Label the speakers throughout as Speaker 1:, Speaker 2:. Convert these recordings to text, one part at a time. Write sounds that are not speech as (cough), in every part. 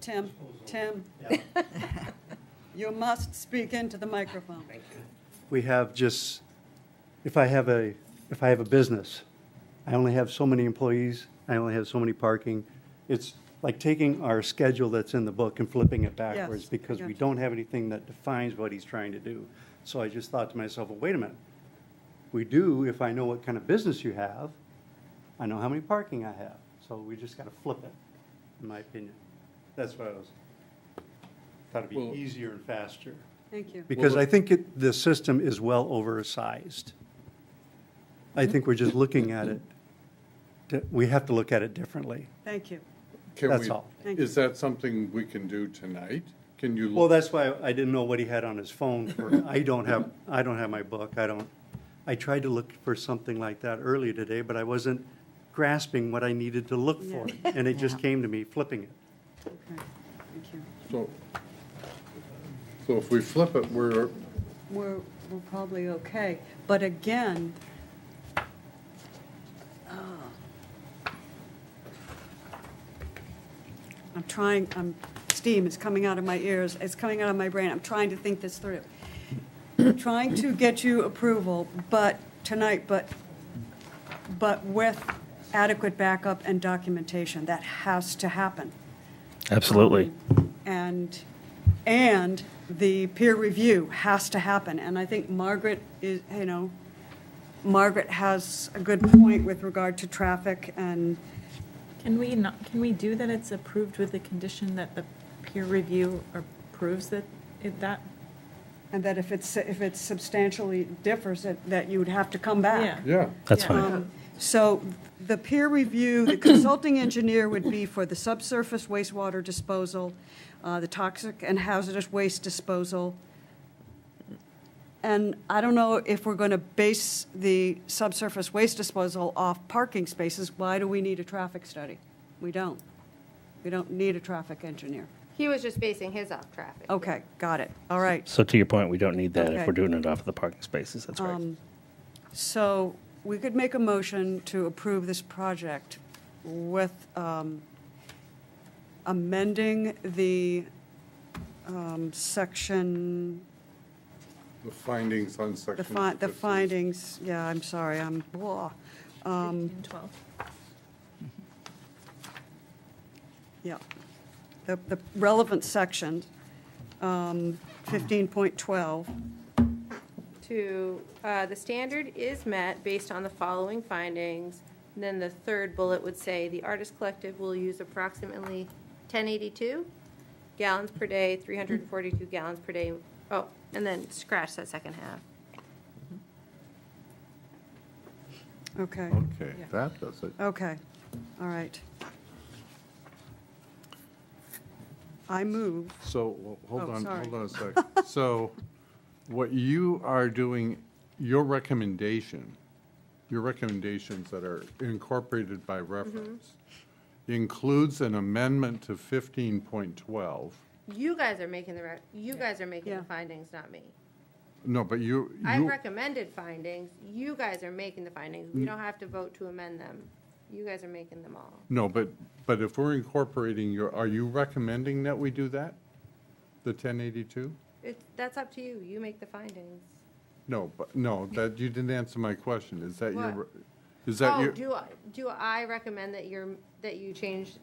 Speaker 1: Tim, Tim,
Speaker 2: Yeah.
Speaker 1: you must speak into the microphone.
Speaker 2: We have just, if I have a, if I have a business, I only have so many employees, I only have so many parking. It's like taking our schedule that's in the book and flipping it backwards
Speaker 1: I
Speaker 2: because we
Speaker 1: gotcha.
Speaker 2: don't have anything that defines what he's trying to do. So I just thought to myself, well, wait a minute. We do if I know what kind of business you have, I know how many parking I have. So we just got to flip it, in my opinion. That's what I was, thought it'd
Speaker 3: Well-
Speaker 2: be easier and faster.
Speaker 1: Thank you.
Speaker 2: Because
Speaker 3: Well,
Speaker 2: I think it, the system is well oversized. I think we're just looking at it, di- we have to look at it differently.
Speaker 1: Thank you.
Speaker 3: Can
Speaker 2: That's
Speaker 3: we-
Speaker 2: all.
Speaker 1: Thank
Speaker 3: Is that something we can do tonight? Can you?
Speaker 2: Well, that's why I didn't know what he had on his phone for, I don't have, I don't have my book, I don't, I tried to look for something like that earlier today, but I wasn't grasping what I needed to look for, and it just came to me flipping it.
Speaker 1: Okay, thank you.
Speaker 3: So so if we flip it, we're,
Speaker 1: We're, we're probably okay, but again, ah. I'm trying, I'm, steam is coming out of my ears, it's coming out of my brain, I'm trying to think this through. Trying to get you approval, but, tonight, but, but with adequate backup and documentation, that has to happen.
Speaker 4: Absolutely.
Speaker 1: And, and the peer review has to happen, and I think Margaret is, you know, Margaret has a good point with regard to traffic and,
Speaker 5: Can we not, can we do that it's approved with the condition that the peer review approves that, it- that?
Speaker 1: and that if it's, if it substantially differs, that, that you would have to come back.
Speaker 3: yeah.
Speaker 4: That's
Speaker 5: Yeah.
Speaker 4: fine.
Speaker 1: Um, So the peer review, the consulting engineer would be for the subsurface wastewater disposal, uh, the toxic and hazardous waste disposal. And I don't know if we're going to base the subsurface waste disposal off parking spaces. Why do we need a traffic study? We don't. We don't need a traffic engineer.
Speaker 6: He was just basing his off traffic.
Speaker 1: Okay, got it. All right.
Speaker 4: So to your point, we don't need that
Speaker 1: Okay.
Speaker 4: if we're doing it off of the parking spaces. That's right.
Speaker 1: So we could make a motion to approve this project with um, amending the um, section,
Speaker 3: The findings on section.
Speaker 1: the fi- the
Speaker 3: 15.
Speaker 1: findings, yeah, I'm sorry, I'm, blah. Um,
Speaker 5: 15, 12.
Speaker 1: yeah. The the relevant section, um, 15.12,
Speaker 6: To, uh, the standard is met based on the following findings. And Then the third bullet would say, the artist collective will use approximately 1082 gallons per day, 342 gallons per day. Oh, and then scratch that second half.
Speaker 1: okay,
Speaker 7: Okay, that does it.
Speaker 1: okay, all right. I move
Speaker 7: So, well,
Speaker 1: Oh,
Speaker 7: hold on,
Speaker 1: sorry. (laughs)
Speaker 7: hold on a sec. So, what you are doing, your recommendation, your recommendations that are incorporated by
Speaker 1: Mm-hmm.
Speaker 7: reference includes an amendment to fifteen point twelve.
Speaker 6: You guys are making the, rec- you guys are making
Speaker 1: Yeah.
Speaker 6: the findings, not me.
Speaker 7: No, but you,
Speaker 6: I
Speaker 7: you,
Speaker 6: recommended findings. You guys are making the findings. We don't have to vote to amend them. You guys are making them all.
Speaker 7: no, but, but if we're incorporating your, are you recommending that we do that? The ten eighty-two?
Speaker 6: It's, that's up to you. You make the findings.
Speaker 7: No, but, no, that, you didn't answer my question. Is that your,
Speaker 6: What?
Speaker 7: re- is that
Speaker 6: Oh,
Speaker 7: your?
Speaker 6: do I, do I recommend that you're, that you change?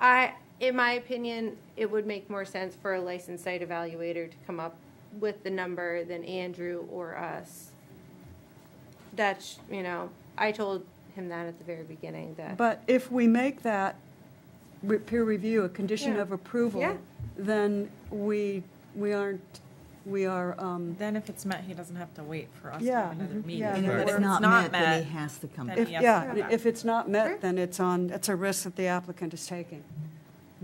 Speaker 6: I, in my opinion, it would make more sense for a licensed site evaluator to come up with the number than Andrew or us. That's, you know, I told him that at the very beginning, that.
Speaker 1: But if we make that re- peer review a condition
Speaker 6: Yeah.
Speaker 1: of approval,
Speaker 6: Yeah.
Speaker 1: then we, we aren't, we are, um,
Speaker 5: Then if it's met, he doesn't have to wait for us to
Speaker 1: Yeah.
Speaker 5: have another
Speaker 1: Mhm.
Speaker 5: meeting.
Speaker 1: Yeah.
Speaker 8: And
Speaker 1: Right.
Speaker 8: if it's not met, then he has to come
Speaker 5: then
Speaker 8: back.
Speaker 1: if,
Speaker 5: he has to
Speaker 1: yeah,
Speaker 5: come back.
Speaker 1: if it's not met,
Speaker 6: Sure.
Speaker 1: then it's on, it's a risk that the applicant is taking.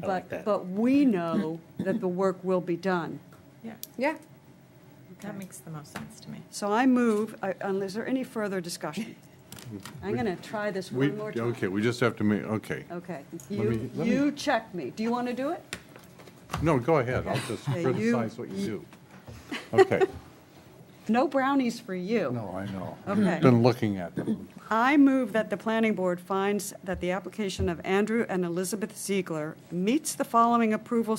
Speaker 4: I like
Speaker 1: But,
Speaker 4: that.
Speaker 1: but we know that the work will be done.
Speaker 5: Yeah,
Speaker 6: Yeah.
Speaker 5: that makes the most sense to me.
Speaker 1: So I move, I- and is there any further discussion? I'm going to try this
Speaker 7: Mm-hmm. We,
Speaker 1: one more time.
Speaker 7: okay, we just have to make, okay.
Speaker 1: Okay.
Speaker 7: me-
Speaker 1: You,
Speaker 7: let me-
Speaker 1: you check me. Do you want to do it?
Speaker 7: No, go ahead, I'll just
Speaker 1: Okay, you- (laughs)
Speaker 7: criticize what you do. Okay,
Speaker 1: No brownies for you.
Speaker 7: No, I know.
Speaker 1: Okay.
Speaker 7: Been looking at them.
Speaker 1: I move that the planning board finds that the application of Andrew and Elizabeth Ziegler meets the following approval